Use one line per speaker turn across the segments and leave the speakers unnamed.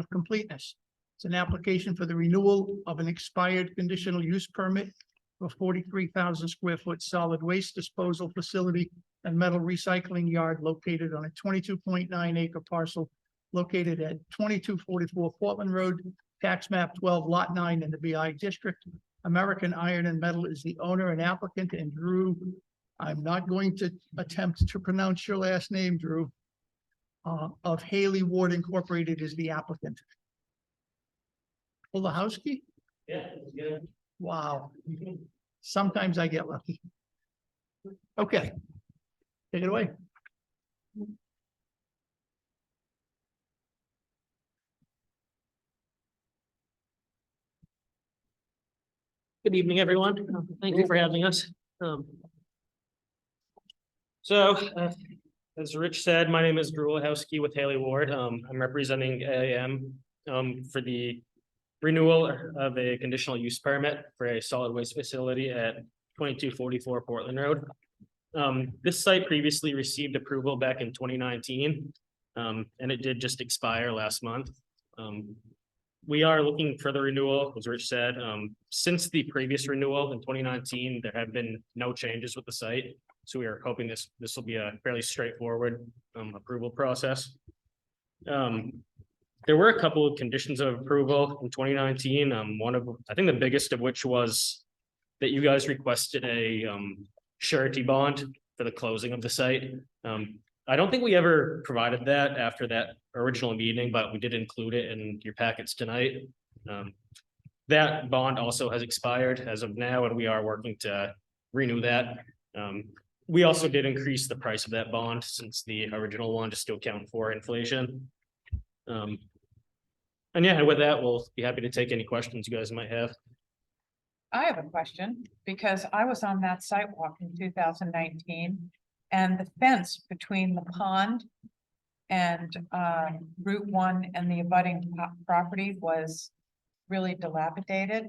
of completeness. It's an application for the renewal of an expired conditional use permit for forty-three thousand square foot solid waste disposal facility and metal recycling yard located on a twenty-two point nine acre parcel located at twenty-two forty-four Portland Road, tax map twelve lot nine in the BI district. American Iron and Metal is the owner and applicant and Drew, I'm not going to attempt to pronounce your last name, Drew. Uh, of Haley Ward Incorporated is the applicant. Olahowski?
Yeah, yeah.
Wow. Sometimes I get lucky. Okay. Take it away.
Good evening, everyone. Uh, Thank you for having us. Um, So, uh, as Rich said, my name is Drew Lahowski with Haley Ward. Um, I'm representing AAM um, for the renewal of a conditional use permit for a solid waste facility at twenty-two forty-four Portland Road. Um, This site previously received approval back in twenty nineteen, um, and it did just expire last month. Um, we are looking for the renewal, as Rich said, um, since the previous renewal in twenty nineteen, there have been no changes with the site. So we are hoping this, this will be a fairly straightforward, um, approval process. Um, there were a couple of conditions of approval in twenty nineteen, um, one of, I think the biggest of which was that you guys requested a, um, surety bond for the closing of the site. Um, I don't think we ever provided that after that original meeting, but we did include it in your packets tonight. Um, That bond also has expired as of now, and we are working to renew that. Um, We also did increase the price of that bond since the original one to still count for inflation. Um, And yeah, with that, we'll be happy to take any questions you guys might have.
I have a question, because I was on that sidewalk in two thousand nineteen, and the fence between the pond. And uh Route One and the abutting po- property was really dilapidated,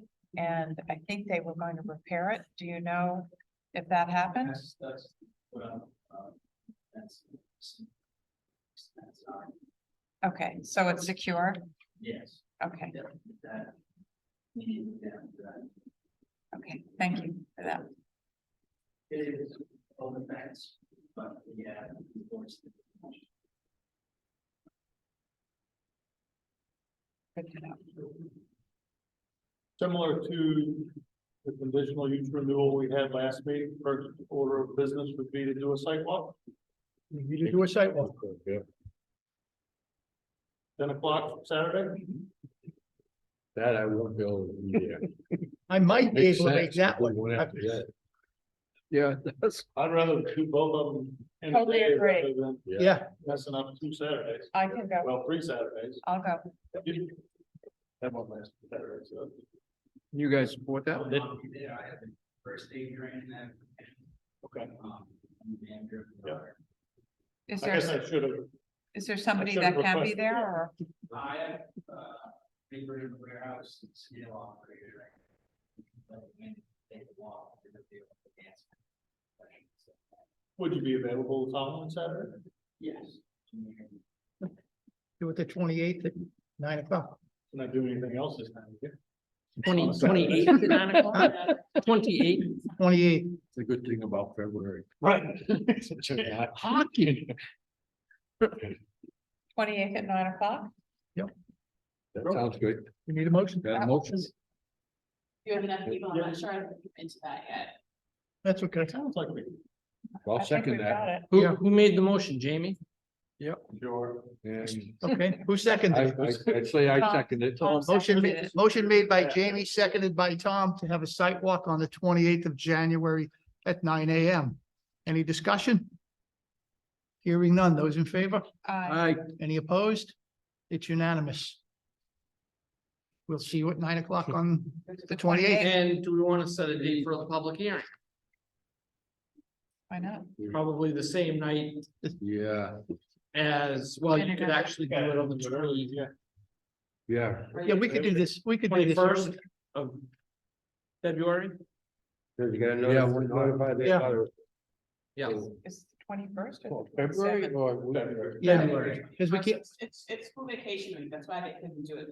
and I think they were going to repair it. Do you know if that happened?
That's, that's what I'm, um, that's. That's not,
Okay, so it's secured,
yes,
okay,
yeah, that. Yeah, that,
okay, thank you for that.
it is all the facts, but yeah, of course.
Good to know.
Similar to the conditional use renewal we had last meeting, first order of business would be to do a site walk,
You need to do a sidewalk.
ten o'clock Saturday.
That I won't be able to be there.
I might be
Makes
able to make
sense,
that
but
one.
we won't have to do that. Yeah, that's,
I'd rather do both of them. in a
Totally
day
agree.
rather than
Yeah,
Messing up two Saturdays,
I can go,
well, three Saturdays.
I'll go.
That one last Saturday, so.
you guys support that?
I'll not be there, I have the first aid training that.
Okay.
Um, I'm the manager of the
Yeah.
bar.
Is
I
there,
guess I should have,
is there somebody
should've
that can be
requested
there,
that.
or?
I have, uh, paper in the warehouse, and steel operator. right? But when they walk, they're gonna be able to dance.
would you be available the following Saturday?
Yes.
do it the twenty-eighth at nine o'clock.
Can I do anything else this time? yeah?
Twenty,
On Saturday.
twenty-eight, nine o'clock, twenty-eight.
Twenty-eighth,
The good thing about February.
Right.
Hockey.
Twenty-eighth at nine o'clock?
That sounds good.
you need a motion?
Got a motion?
You have enough people, I'm not sure I've into that yet.
That's okay.
Sounds like we,
I'll
I think
second
we've got
that.
it.
Who,
Yeah.
who made the motion, Jamie?
sure.
And
Okay, who seconded?
I,
it?
I, I'd say I
Tom-
second it.
Tom
Motion
seconded
made,
it.
motion made by Jamie, seconded by Tom to have a site walk on the twenty-eighth of January at nine AM. Any discussion? Hearing none. Those in favor?
Aye.
Uh,
I,
Any opposed? It's unanimous. We'll see you at nine o'clock on the twenty-eighth.
And do we want to set a date for the public hearing?
Why not?
Probably the same night
yeah,
as, well, you could actually do it on the
Yeah.
yeah,
Yeah, we could do this. We could do this.
twenty-first of February.
yeah. we're notified.
Yeah.
Is
twenty-first or
Well,
the
February
twenty-seventh?
or?
February.
January, because we can't,
It's, it's school vacation week, that's why they couldn't do it